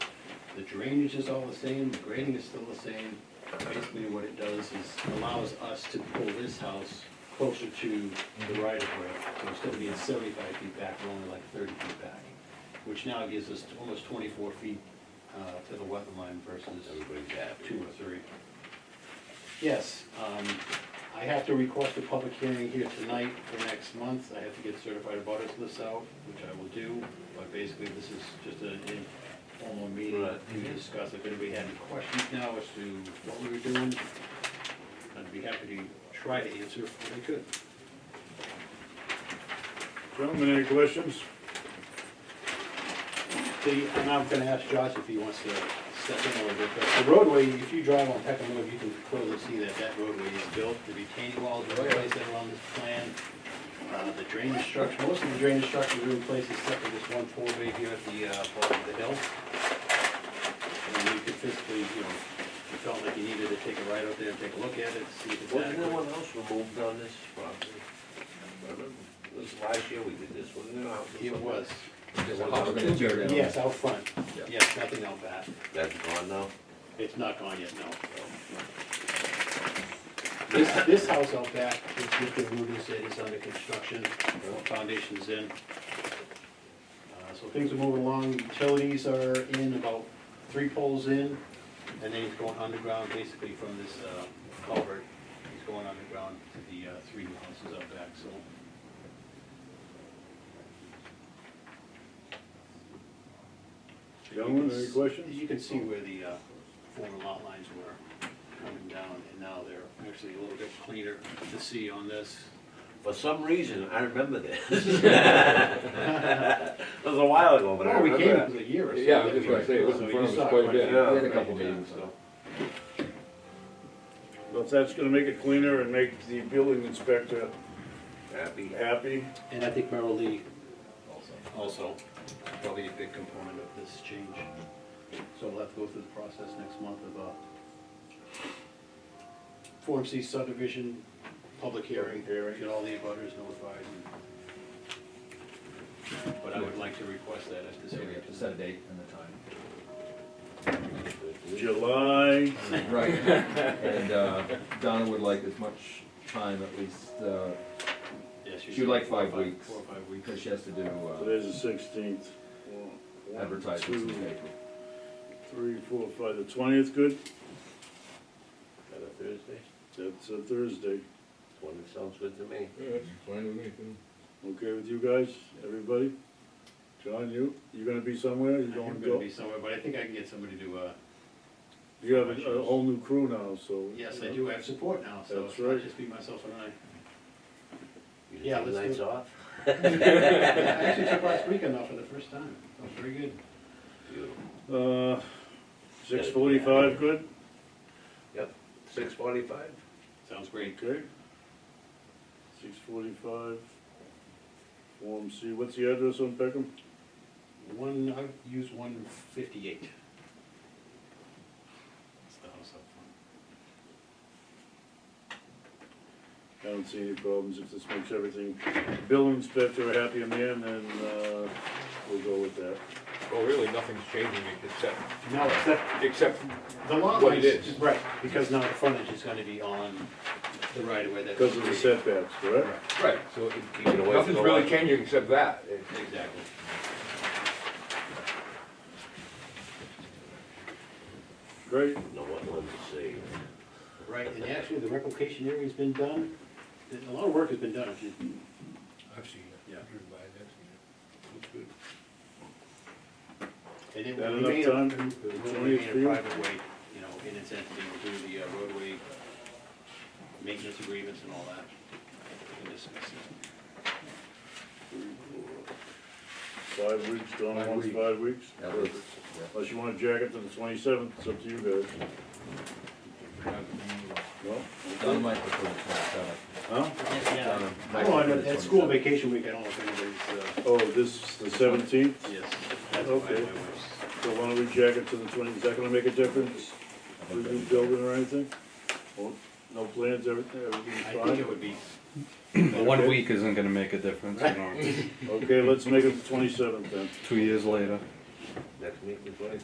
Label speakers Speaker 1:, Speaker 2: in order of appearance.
Speaker 1: The drainage is all the same, the grading is still the same. Basically, what it does is allows us to pull this house closer to the right of way. So instead of being seventy-five feet back, we're only like thirty feet back, which now gives us almost twenty-four feet uh, to the wetland line versus
Speaker 2: Everybody's
Speaker 1: two
Speaker 2: happy.
Speaker 1: or three. Yes, um, I have to request a public hearing here tonight for next month. I have to get certified abutters lists out, which I will do, but basically this is just an informal meeting
Speaker 2: Right.
Speaker 1: to discuss if anybody had any questions now as to what we were doing. I'd be happy to try to answer if I could.
Speaker 3: Gentlemen, any questions?
Speaker 1: See, and I'm gonna ask Josh if he wants to step in a little bit, but the roadway, if you drive on Peckham Road, you can clearly see that that roadway is built, the retaining walls are replaced that are on this plan. Uh, the drainage structure, most of the drainage structure is replaced except for this one four-way here at the, uh, bottom of the hill. And you could physically, you know, you felt like you needed to take a ride out there and take a look at it, see if it's
Speaker 2: Wasn't there
Speaker 1: adequate.
Speaker 2: one else removed on this property? It was last year we did this, wasn't it?
Speaker 1: It was,
Speaker 4: There's a house right there now.
Speaker 1: yes, out front,
Speaker 4: Yeah.
Speaker 1: yes, nothing out back,
Speaker 2: That's gone now?
Speaker 1: it's not gone yet, no. This, this house out back, which Mr. Rubin said is under construction, the foundation's in. Uh, So things are moving along, utilities are in about three poles in, and then he's going underground basically from this uh, culvert. He's going underground to the uh, three new houses out back, so.
Speaker 3: Gentlemen, any questions?
Speaker 1: You can see where the uh, former lot lines were coming down, and now they're actually a little bit cleaner to see on this.
Speaker 2: For some reason, I remember this. It was a while ago, but I
Speaker 1: Well, we came, it
Speaker 2: remember.
Speaker 1: was a year or so.
Speaker 4: Yeah, I was just gonna say, it was
Speaker 1: So
Speaker 4: in
Speaker 1: you
Speaker 4: front of
Speaker 1: saw
Speaker 4: us quite a bit, we
Speaker 1: yeah,
Speaker 4: had a
Speaker 1: right,
Speaker 4: couple
Speaker 1: yeah,
Speaker 4: meetings,
Speaker 1: so.
Speaker 3: Well, if that's gonna make it cleaner and make the building inspector
Speaker 2: Happy.
Speaker 3: happy,
Speaker 1: And I think Merrill Lee also, probably a big component of this change. So we'll have to go through the process next month of uh Form C subdivision, public hearing, get all the abutters notified. and- But I would like to request that at this
Speaker 4: So we
Speaker 1: hearing.
Speaker 4: have to set a date and the
Speaker 3: July,
Speaker 4: time. Right, and uh, Donna would like as much time at least, uh,
Speaker 1: Yes, you
Speaker 4: She would like
Speaker 1: should.
Speaker 4: five
Speaker 1: Four or
Speaker 4: weeks.
Speaker 1: Four or five weeks.
Speaker 4: because she has to do uh,
Speaker 3: today's the sixteenth.
Speaker 4: advertisements in the paper.
Speaker 3: Three, four, five, the twentieth, good?
Speaker 2: Is that a Thursday?
Speaker 3: That's a Thursday.
Speaker 2: It's One that sounds good to me.
Speaker 3: Okay with you guys, everybody? John, you, you gonna be somewhere,
Speaker 1: I
Speaker 3: you
Speaker 1: think I'm
Speaker 3: going to
Speaker 1: gonna
Speaker 3: go?
Speaker 1: be somewhere, but I think I can get somebody to, uh,
Speaker 3: You have a a whole new crew now, so.
Speaker 1: yes, I do have support now, so
Speaker 3: That's
Speaker 1: it's not
Speaker 3: right.
Speaker 1: just be myself and I.
Speaker 2: You
Speaker 1: Yeah,
Speaker 2: didn't
Speaker 1: let's
Speaker 2: take nights
Speaker 1: do it.
Speaker 2: off?
Speaker 1: I actually took last weekend off for the first time, that was very good.
Speaker 2: Beautiful.
Speaker 3: Uh, six forty-five, good?
Speaker 2: Yep, six forty-five?
Speaker 1: Sounds great.
Speaker 3: Okay. Six forty-five. Form C, what's the address on Peckham?
Speaker 1: One, I use one fifty-eight. That's the house up front.
Speaker 3: I don't see any problems, if this makes everything, bill inspector a happy man, then, uh, we'll go with that.
Speaker 5: Well, Oh, really, nothing's changing except,
Speaker 1: No, except
Speaker 5: except,
Speaker 1: the lot
Speaker 5: What it
Speaker 1: lines,
Speaker 5: is.
Speaker 1: right, because now the frontage is gonna be on the right of way that's.
Speaker 3: Because of the setbacks, correct?
Speaker 1: Correct,
Speaker 5: right, so it-
Speaker 2: Keeping away from
Speaker 5: nothing's
Speaker 2: the
Speaker 5: really
Speaker 2: light.
Speaker 5: changing except that. It-
Speaker 1: exactly.
Speaker 3: Great,
Speaker 2: No one wants to see.
Speaker 1: Right, and actually, the replication area's been done, a lot of work has been done, if you
Speaker 5: I've seen it,
Speaker 1: Yeah.
Speaker 5: I've driven by it, I've seen it. Looks
Speaker 1: And it
Speaker 3: Got
Speaker 1: will
Speaker 3: enough
Speaker 1: remain, a-
Speaker 3: time
Speaker 1: it will
Speaker 3: to
Speaker 1: remain a
Speaker 3: review?
Speaker 1: private way, you know, in its entity, we'll do the uh, roadway maintenance agreements and all that. We can discuss it.
Speaker 3: five weeks, Donna
Speaker 4: Five
Speaker 3: wants
Speaker 4: weeks.
Speaker 3: five weeks?
Speaker 4: At least, yeah.
Speaker 3: Unless you wanna jack it to the twenty-seventh, it's up to you guys. No?
Speaker 4: Donna might prefer the twenty-seventh.
Speaker 3: Huh?
Speaker 1: Um,
Speaker 4: Donna might
Speaker 1: Well,
Speaker 4: prefer
Speaker 1: and
Speaker 4: the
Speaker 1: Oh, at school
Speaker 4: 27th.
Speaker 1: vacation week, I don't know if anybody's, uh,
Speaker 3: Oh, this is the seventeenth,
Speaker 1: yes, that's why
Speaker 3: Okay.
Speaker 1: my wife's,
Speaker 3: so why don't we jack it to the twentieth, is that gonna make a difference? We do building or anything? Well, No plans, everything, everything's
Speaker 1: I
Speaker 3: fine?
Speaker 1: think it would be,
Speaker 6: Well, One week isn't gonna make a difference, you know,
Speaker 3: Okay, let's make it the twenty-seventh then.
Speaker 6: two years later.
Speaker 2: Next meeting, twenty